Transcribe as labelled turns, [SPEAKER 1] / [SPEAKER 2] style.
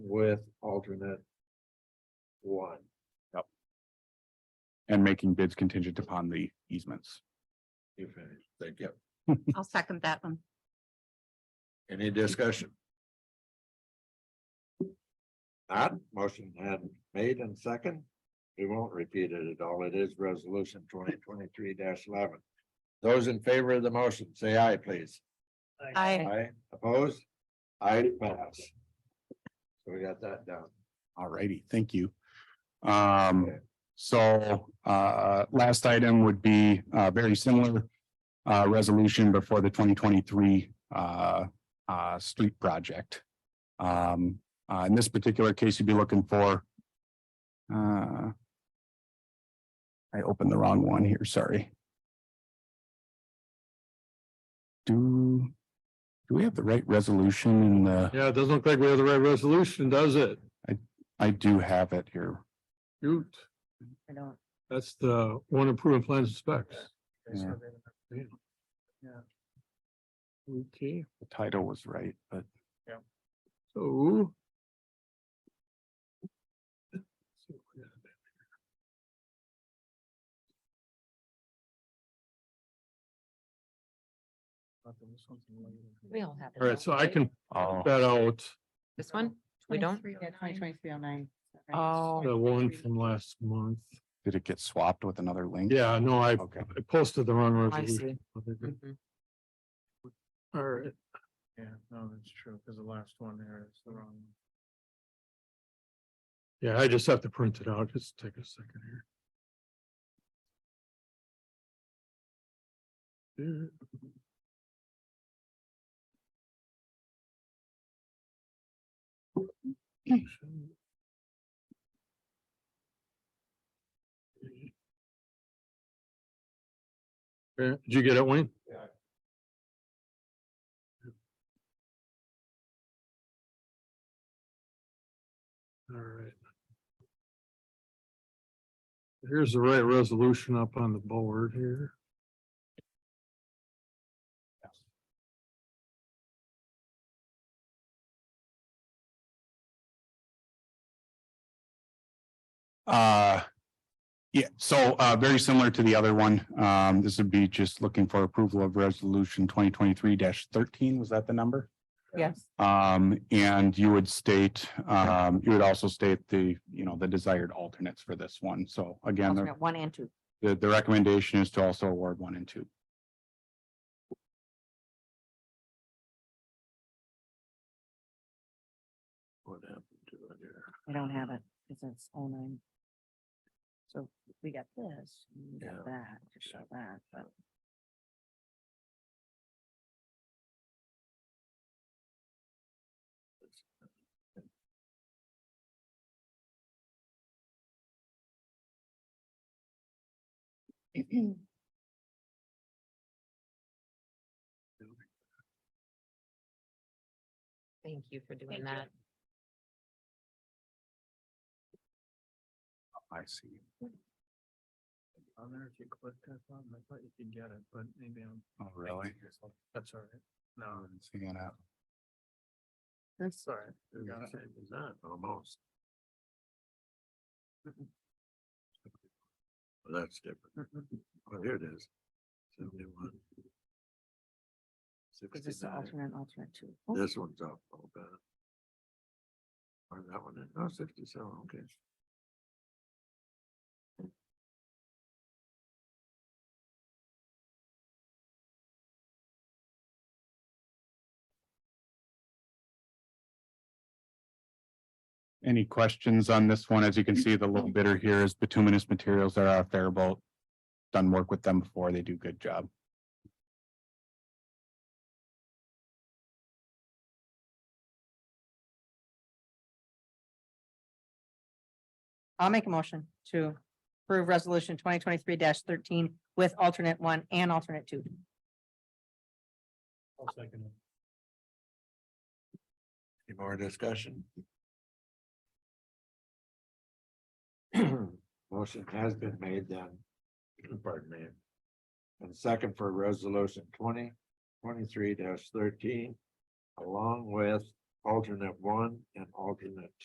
[SPEAKER 1] with alternate one.
[SPEAKER 2] and making bids contingent upon the easements.
[SPEAKER 1] You finished. Thank you.
[SPEAKER 3] I'll second that one.
[SPEAKER 1] Any discussion? Not motion had made and second. We won't repeat it at all. It is resolution twenty twenty-three eleven. Those in favor of the motion, say aye, please.
[SPEAKER 3] I,
[SPEAKER 1] Aye, opposed? Aye, pass. So we got that done.
[SPEAKER 2] Alrighty, thank you. Um, so, uh, last item would be, uh, very similar. Uh, resolution before the twenty twenty-three, uh, uh, street project. Um, uh, in this particular case, you'd be looking for. Uh. I opened the wrong one here, sorry. Do, do we have the right resolution in the,
[SPEAKER 4] Yeah, it doesn't look like we have the right resolution, does it?
[SPEAKER 2] I do have it here.
[SPEAKER 4] Shoot,
[SPEAKER 5] I don't.
[SPEAKER 4] that's the one improvement plans and specs.
[SPEAKER 2] Yeah.
[SPEAKER 4] Okay,
[SPEAKER 2] The title was right, but.
[SPEAKER 4] so.
[SPEAKER 5] We all have. it,
[SPEAKER 4] All right,
[SPEAKER 5] don't
[SPEAKER 4] so
[SPEAKER 5] we?
[SPEAKER 4] I can
[SPEAKER 2] Oh.
[SPEAKER 4] bet out
[SPEAKER 5] This one? We don't? Yeah, twenty twenty-three oh nine. Oh.
[SPEAKER 4] the uh, one from last month.
[SPEAKER 2] Did it get swapped with another link?
[SPEAKER 4] Yeah, no, I
[SPEAKER 2] Okay,
[SPEAKER 4] I posted the wrong
[SPEAKER 5] I
[SPEAKER 4] resolution.
[SPEAKER 5] see. Mm-hmm.
[SPEAKER 4] All right,
[SPEAKER 1] Yeah, no, that's true, because the last one there is the wrong.
[SPEAKER 4] yeah, I just have to print it out. Just take a second here. Yeah. Okay, Did you get it, Wayne? All right. Here's the right resolution up on the board here.
[SPEAKER 2] uh. Yeah, so uh very similar to the other one. Um, this would be just looking for approval of resolution twenty twenty-three thirteen. Was that the number?
[SPEAKER 5] Yes.
[SPEAKER 2] Um, and you would state, um, you would also state the, you know, the desired alternates for this one. So again, the-
[SPEAKER 5] Alternate One and two.
[SPEAKER 2] the the recommendation is to also award one and two.
[SPEAKER 1] What happened to it here?
[SPEAKER 5] I don't have it because it's oh nine. So we got this, and we
[SPEAKER 1] Yeah.
[SPEAKER 5] got that, to show that, but. Thank you for doing that.
[SPEAKER 2] I see.
[SPEAKER 4] On there, if you click that button, I thought you could get it, but maybe I'm.
[SPEAKER 2] Oh, really?
[SPEAKER 4] That's all right.
[SPEAKER 2] I wasn't Seeing it.
[SPEAKER 5] That's
[SPEAKER 4] all right. We got it.
[SPEAKER 1] Not almost. Well, That's different. Well, here it is. Seventy-one.
[SPEAKER 5] Because it's the
[SPEAKER 1] Sixty-nine.
[SPEAKER 5] alternate, and alternate two. Oh,
[SPEAKER 1] This one's up a little bit. Or that one, no, sixty-seven, okay.
[SPEAKER 2] Any questions on this one? As you can see, the little bidder here is bituminous materials that are out there about. Done work with them before. They do good job.
[SPEAKER 5] I'll make a motion to approve resolution twenty twenty-three thirteen with alternate one and alternate two.
[SPEAKER 1] Any more discussion? Motion has been made then, pardon me. And second for resolution twenty twenty-three thirteen, along with alternate one and alternate